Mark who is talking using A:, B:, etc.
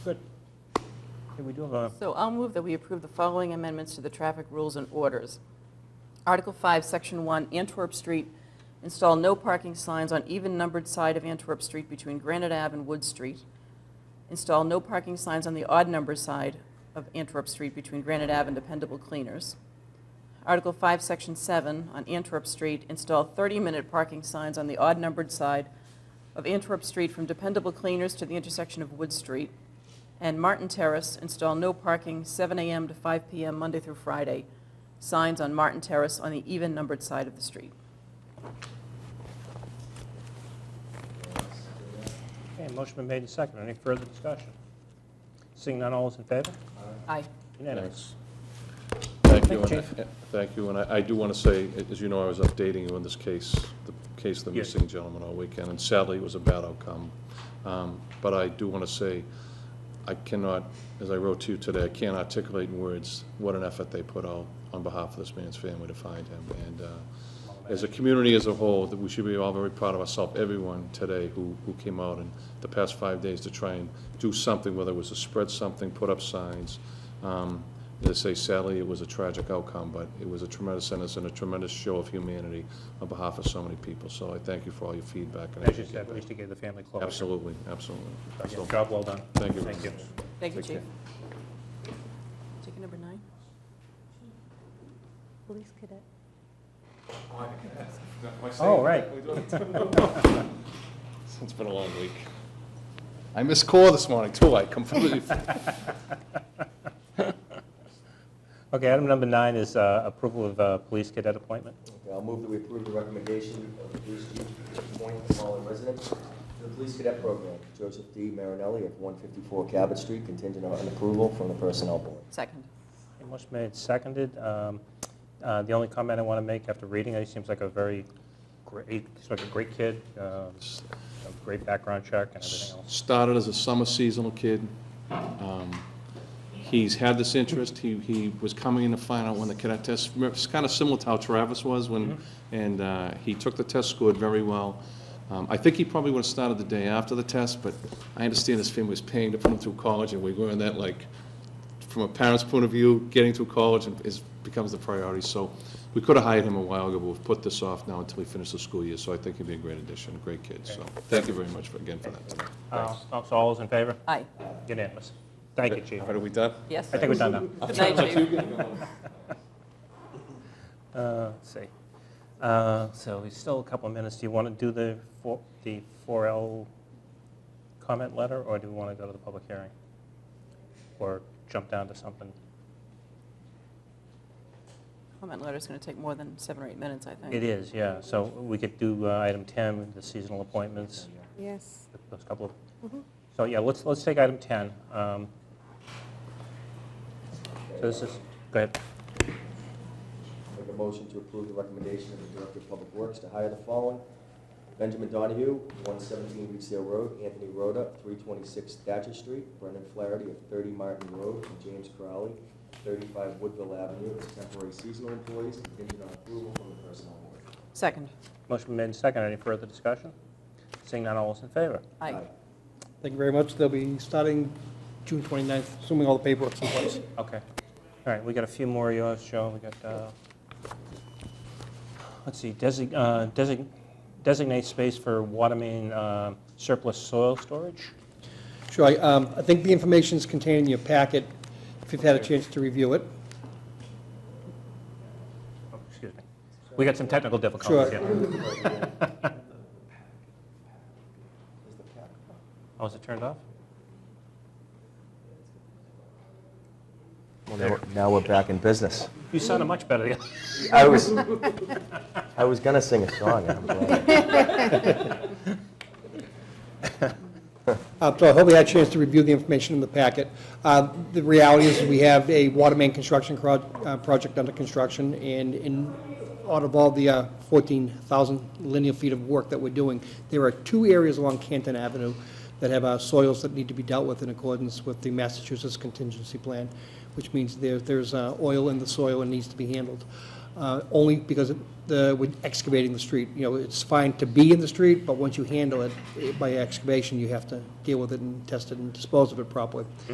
A: Good. Okay, we do have a,
B: So I'll move that we approve the following amendments to the traffic rules and orders. Article 5, Section 1, Antwerp Street, install no parking signs on even-numbered side of Antwerp Street between Granite Ave and Wood Street. Install no parking signs on the odd-numbered side of Antwerp Street between Granite Ave and Dependable Cleaners. Article 5, Section 7, on Antwerp Street, install 30-minute parking signs on the odd-numbered side of Antwerp Street from Dependable Cleaners to the intersection of Wood Street. And Martin Terrace, install no parking 7 a.m. to 5 p.m. Monday through Friday, signs on Martin Terrace on the even-numbered side of the street.
A: okay, motion been made and seconded. Any further discussion? Seeing none, all is in favor?
B: Aye.
A: Unanimous.
C: Thank you,
A: Thank you,
C: and I- thank you, and I I do want to say, a- as you know, I was updating you in this case, the case of the
A: Yes.
C: missing gentleman all weekend, and sadly, it was a bad outcome. Um, But I do want to say, I cannot, as I wrote to you today, I can't articulate in words what an effort they put out on behalf of this man's family to find him. And uh, as a community as a whole, that we should be all very proud of ourselves, everyone today who, who came out in the past five days to try and do something, whether it was to spread something, put up signs. Um, As I say, sadly, it was a tragic outcome, but it was a tremendous sentence and a tremendous show of humanity on behalf of so many people. So I thank you for all your feedback. and
A: As you
C: everything.
A: said, we used to give the family closure.
C: Absolutely, absolutely.
A: Yeah,
C: So,
A: Job well done.
C: Thank you.
A: Thank you.
B: Thank you, Chief.
C: Take care.
B: Ticket number nine?
D: Police cadet.
A: Oh, right.
C: It's been a long week. I missed call this morning, too. I completely,
A: Okay, item number nine is uh, approval of uh, police cadet appointment.
E: Okay, I'll move that we approve the recommendation of the police chief to appoint the following residents to the police cadet program. Joseph D. Marinelli of 154 Cabot Street, contingent on approval from the personnel board.
B: Second.
A: Okay, Motion made, seconded. Um, uh, The only comment I want to make after reading it, he seems like a very great, he's like a great kid, uh, a great background check and everything else.
C: started as a summer seasonal kid. Um, He's had this interest, he, he was coming in to find out when the cadet test, it's kind of similar to how Travis was when, and uh, he took the test, scored very well. Um, I think he probably would have started the day after the test, but I understand his family was paying to put him through college, and we were in that like, from a parent's point of view, getting through college is, becomes the priority. So we could have hired him a while ago, but we've put this off now until he finishes the school year. So I think he'd be a great addition, a great kid. So thank you very much for, again, for that. tonight.
A: Uh, So so all is in favor?
B: Aye.
A: Unanimous. Thank you, Chief.
C: All right, are we done?
B: Yes?
A: I think we're done now.
B: Good night, Chief.
A: Uh, Let's see. Uh, So we still a couple of minutes. Do you want to do the four- the 4L comment letter, or do we want to go to the public hearing? Or jump down to something?
B: Comment letter's going to take more than seven or eight minutes, I think.
A: It is, yeah. So we could do uh, item 10, the seasonal appointments,
D: Yes.
A: those couple of,
D: Mhm.
A: so yeah, let's, let's take item 10. Um, So this is, go ahead.
E: Make a motion to approve the recommendation of the Director of Public Works to hire the following. Benjamin Donahue, 117 Reedsdale Road, Anthony Rhoda, 326 Thatcher Street, Brendan Flaherty of 30 Martin Road, and James Crowley, 35 Woodville Avenue, as temporary seasonal employees, contingent on approval from the personnel board.
B: Second.
A: Motion made and seconded. Any further discussion? Seeing none, all is in favor?
B: Aye.
F: Thank you very much. They'll be starting June 29th, assuming all the paperwork's in place.
A: Okay. All right, we got a few more of yours, Joe. We got, uh, let's see, desi- uh, desi- designate space for water main uh, surplus soil storage?
F: Sure, I, um, I think the information is contained in your packet, if you've had a chance to review it.
A: Oh, Excuse me. We got some technical difficulties
F: Sure.
A: here.
E: Is the cap-
A: Oh, is it turned off?
E: Well, now- now we're back in business.
A: You sounded much better. the other-
E: I was, I was gonna sing a song. and I'm glad.
F: Uh, So I hope you had a chance to review the information in the packet. Uh, The reality is, we have a water main construction cro- uh, project under construction, and in, out of all the uh, 14,000 linear feet of work that we're doing, there are two areas along Canton Avenue that have uh, soils that need to be dealt with in accordance with the Massachusetts contingency plan, which means there, there's uh, oil in the soil and needs to be handled. uh, only because of the, with excavating the street, you know, it's fine to be in the street, but once you handle it eh, by excavation, you have to deal with it and test it and dispose of it properly.